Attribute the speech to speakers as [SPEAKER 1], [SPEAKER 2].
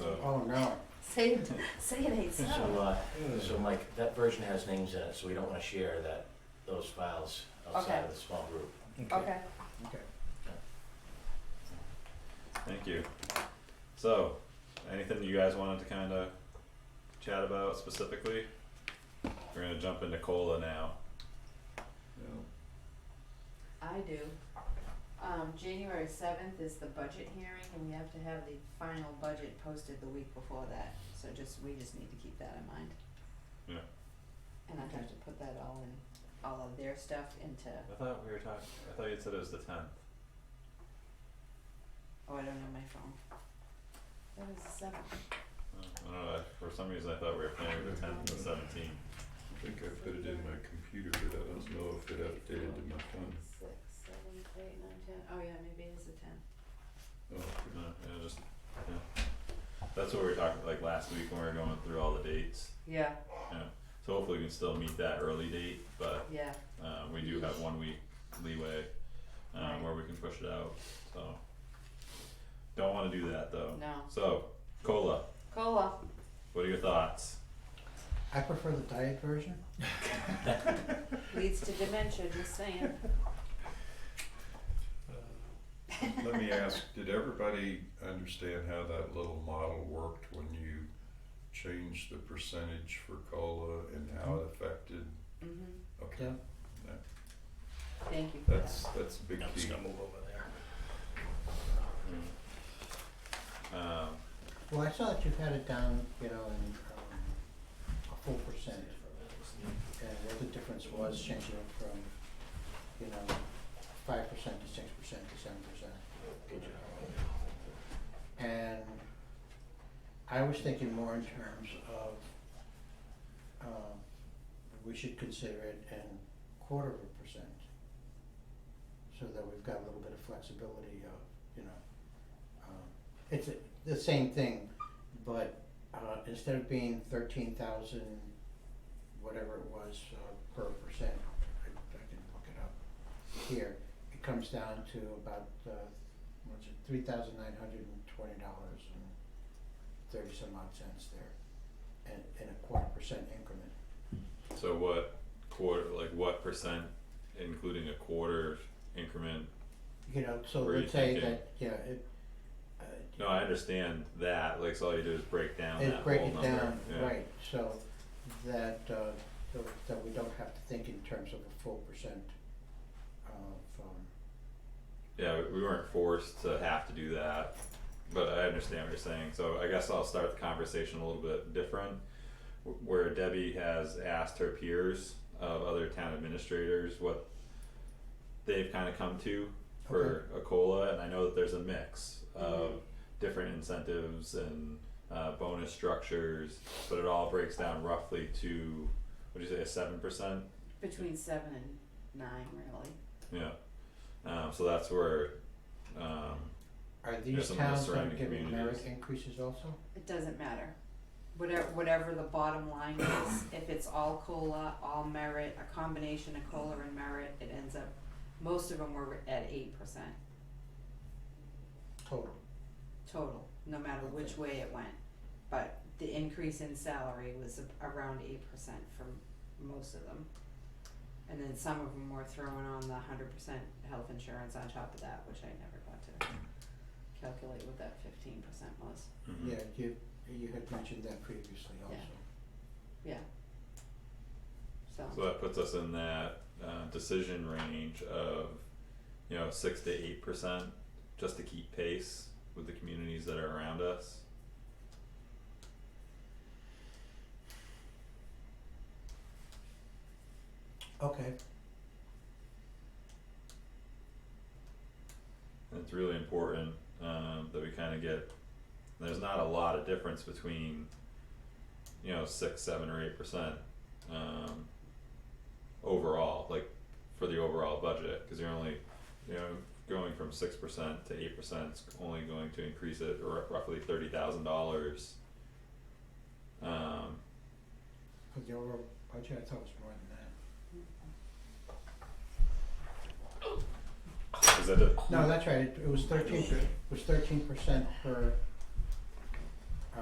[SPEAKER 1] Oh, no.
[SPEAKER 2] Say, it- say it ain't
[SPEAKER 3] So,
[SPEAKER 2] so.
[SPEAKER 3] uh, so Mike, that version has names in it, so we don't wanna share that, those files outside
[SPEAKER 2] Okay.
[SPEAKER 3] of the small group.
[SPEAKER 2] Okay,
[SPEAKER 1] Okay.
[SPEAKER 4] Thank you. So, anything you guys wanted to kind of chat about specifically? We're gonna jump into cola now.
[SPEAKER 5] I do. Um, January seventh is the budget hearing and we have to have the final budget posted the week before that, so just, we just need to keep that in mind.
[SPEAKER 4] Yeah.
[SPEAKER 5] And I have to put that all in, all of their stuff into,
[SPEAKER 4] I thought we were talking. I thought you said it was the tenth.
[SPEAKER 5] oh, I don't know my phone. That was the seventh,
[SPEAKER 4] I don't know. I, for some reason, I thought we were planning the tenth and the seventeenth.
[SPEAKER 6] I think I put it in my computer, but I don't know if it updated to my phone.
[SPEAKER 5] six, seven, eight, nine, ten, oh yeah, maybe it is the tenth.
[SPEAKER 6] Oh,
[SPEAKER 4] No, Uh, yeah, just yeah. That's what we were talking like last week when we were going through all the dates.
[SPEAKER 5] Yeah,
[SPEAKER 4] So hopefully we can still meet that early date, but
[SPEAKER 5] yeah,
[SPEAKER 4] um, we do have one week leeway um, where we can push it out. So don't want to do that
[SPEAKER 6] Oh.
[SPEAKER 4] though.
[SPEAKER 5] no,
[SPEAKER 4] So, cola.
[SPEAKER 5] cola,
[SPEAKER 4] What are your thoughts?
[SPEAKER 1] I prefer the diet version.
[SPEAKER 5] leads to dementia, just saying.
[SPEAKER 6] okay. Let me ask, did everybody understand how that little model worked when you changed the percentage for COLA and how it affected?
[SPEAKER 5] Mhm,
[SPEAKER 6] Okay,
[SPEAKER 5] thank you for that.
[SPEAKER 6] that's, that's a big key.
[SPEAKER 3] move over there.
[SPEAKER 4] Um,
[SPEAKER 1] Well, I saw that you've had it down, you know, in um, a full percent. And what the difference was changing it from, you know, five percent to six percent to seven percent.
[SPEAKER 3] Good job.
[SPEAKER 1] And I was thinking more in terms of, um, we should consider it in quarter of a percent. So that we've got a little bit of flexibility of, you know, um, it's a- the same thing, but, uh, instead of being thirteen thousand, whatever it was, uh, per percent, I, I can look it up here, it comes down to about, uh, what's it, three thousand nine hundred and twenty dollars and thirty some odd cents there, and in a quarter percent increment.
[SPEAKER 4] so what quarter, like what percent, including a quarter increment?
[SPEAKER 1] You know, so
[SPEAKER 4] Were you
[SPEAKER 1] let's say
[SPEAKER 4] thinking-
[SPEAKER 1] that, yeah, it, uh,
[SPEAKER 4] No, I understand that. Like, so all you do is break down
[SPEAKER 1] it
[SPEAKER 4] that
[SPEAKER 1] break
[SPEAKER 4] whole
[SPEAKER 1] it
[SPEAKER 4] number.
[SPEAKER 1] down,
[SPEAKER 4] yeah.
[SPEAKER 1] right, so that, uh, so that we don't have to think in terms of a full percent of, um,
[SPEAKER 4] Yeah, we- we weren't forced to have to do that, but I understand what you're saying. So I guess I'll start the conversation a little bit different, wh- where Debbie has asked her peers of other town administrators what they've kind of come to for a cola, and I know that there's a mix of different incentives and uh, bonus structures, but it all breaks down roughly to what do you say a seven percent
[SPEAKER 5] Between seven and nine, really.
[SPEAKER 4] yeah. Um, so that's where, um,
[SPEAKER 1] are
[SPEAKER 4] Yeah,
[SPEAKER 1] these
[SPEAKER 4] some of the
[SPEAKER 1] towns gonna
[SPEAKER 4] surrounding
[SPEAKER 1] give merit
[SPEAKER 4] communities.
[SPEAKER 1] increases also?
[SPEAKER 5] It doesn't matter. Whatever, whatever the bottom line is, if it's all COLA, all merit, a combination of COLA and merit, it ends up, most of them were at eight percent
[SPEAKER 1] Total,
[SPEAKER 5] total, no matter which way it went. But the increase in salary was a- around eight percent for most of them. And then some of them were throwing on the hundred percent health insurance on top of that, which I never got to calculate what that fifteen percent was.
[SPEAKER 4] Mm-hmm.
[SPEAKER 1] yeah, you, you had mentioned that previously also.
[SPEAKER 4] So that puts us in that uh, decision range of, you know, six to eight percent, just to keep pace with the communities that are around us.
[SPEAKER 1] Okay,
[SPEAKER 4] And it's really important um, that we kind of get. There's not a lot of difference between, you know, six, seven, or eight percent um, overall, like for the overall budget, because you're only, you know, going from six percent to eight percent is only going to increase it r- roughly thirty thousand dollars. Um,
[SPEAKER 1] for the overall budget, I thought it was more than that.
[SPEAKER 4] is that the Mm-hmm.
[SPEAKER 1] No, that's right, it it was thirteen, it was thirteen percent per